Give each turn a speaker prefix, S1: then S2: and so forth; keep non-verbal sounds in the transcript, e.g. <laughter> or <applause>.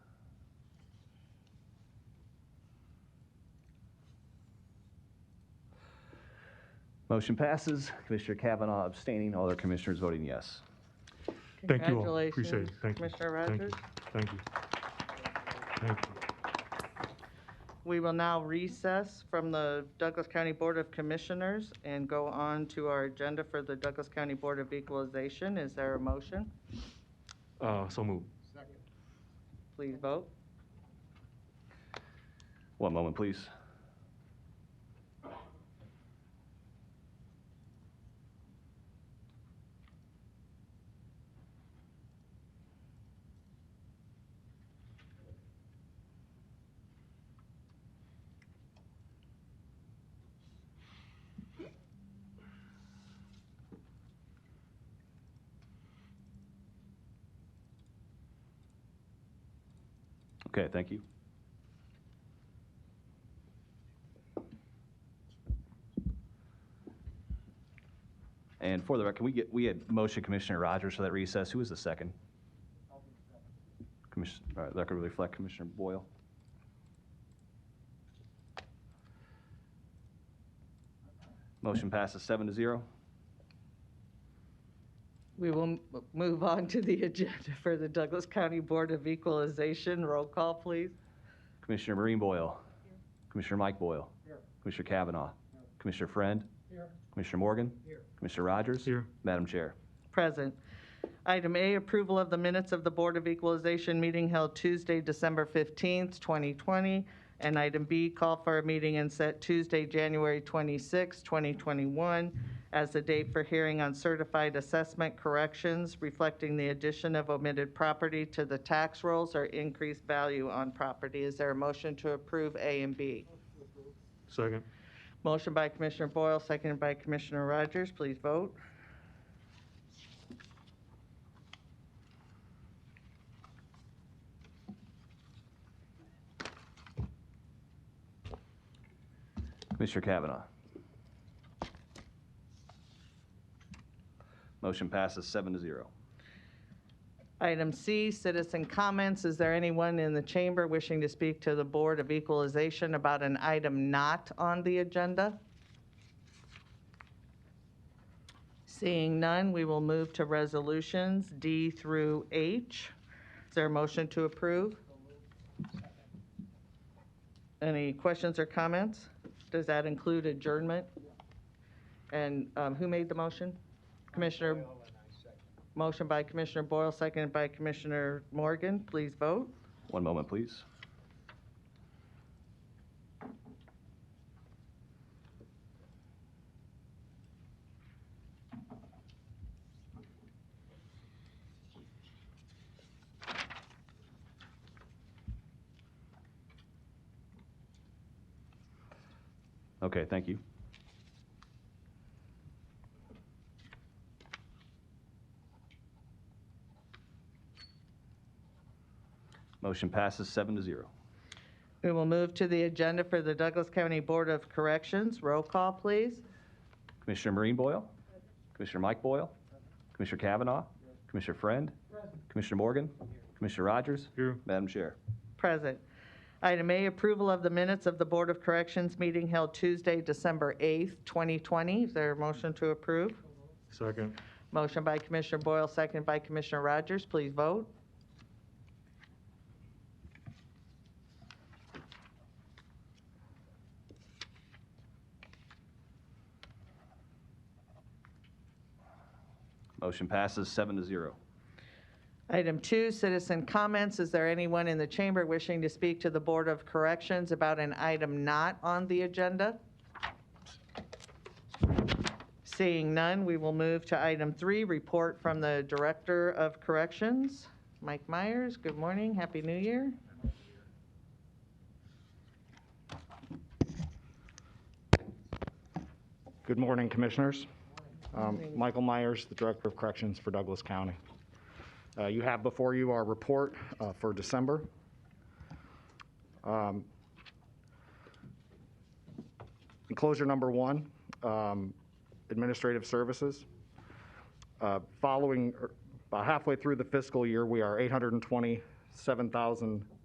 S1: Motion passes. Commissioner Kavanaugh abstaining, all other commissioners voting yes.
S2: Thank you all. Appreciate it.
S3: Congratulations,
S2: Thank you.
S3: Commissioner
S2: Thank you.
S3: Rogers.
S2: Thank you. Thank you.
S3: We will now recess from the Douglas County Board of Commissioners and go on to our agenda for the Douglas County Board of Equalization. Is there a motion?
S2: Uh, so move.
S3: Please vote.
S1: One moment, please. Okay, thank you. And for the record, we get, we had motion Commissioner Rogers for that recess. Who was the second? Commissioner, all right, that could reflect Commissioner Boyle. Motion passes seven to zero.
S3: We will m- move on to the <laughs> agenda for the Douglas County Board of Equalization. Roll call, please.
S1: Commissioner Marine Boyle. Commissioner Mike Boyle. Commissioner Kavanaugh. Commissioner Friend. Commissioner Morgan. Commissioner Rogers.
S2: Here.
S1: Madam Chair.
S3: Present. Item A, approval of the minutes of the Board of Equalization meeting held Tuesday, December 15th, 2020. And item B, call for a meeting and set Tuesday, January 26th, 2021 as the date for hearing on certified assessment corrections reflecting the addition of omitted property to the tax rolls or increased value on property. Is there a motion to approve A and B?
S2: Second.
S3: Motion by Commissioner Boyle, seconded by Commissioner Rogers. Please vote.
S1: Commissioner Kavanaugh. Motion passes seven to zero.
S3: Item C, citizen comments. Is there anyone in the chamber wishing to speak to the Board of Equalization about an item not on the agenda? Seeing none, we will move to resolutions D through H. Is there a motion to approve? Any questions or comments? Does that include adjournment? And um, who made the motion? Commissioner? Motion by Commissioner Boyle, seconded by Commissioner Morgan. Please vote.
S1: One moment, please. Okay, thank you. Motion passes seven to zero.
S3: We will move to the agenda for the Douglas County Board of Corrections. Roll call, please.
S1: Commissioner Marine Boyle? Commissioner Mike Boyle? Commissioner Kavanaugh? Commissioner Friend? Commissioner Morgan? Commissioner Rogers?
S2: Here.
S1: Madam Chair.
S3: Present. Item A, approval of the minutes of the Board of Corrections meeting held Tuesday, December 8th, 2020. Is there a motion to approve?
S2: Second.
S3: Motion by Commissioner Boyle, seconded by Commissioner Rogers. Please vote.
S1: Motion passes seven to zero.
S3: Item two, citizen comments. Is there anyone in the chamber wishing to speak to the Board of Corrections about an item not on the agenda? Seeing none, we will move to item three, report from the Director of Corrections, Mike Myers. Good morning, Happy New Year.
S4: Good morning, Commissioners. Um, Michael Myers, the Director of Corrections for Douglas County. Uh, You have before you our report uh, for December. Um, Enclosure number one, um, Administrative Services. Uh, Following, er, about halfway through the fiscal year, we are $827,000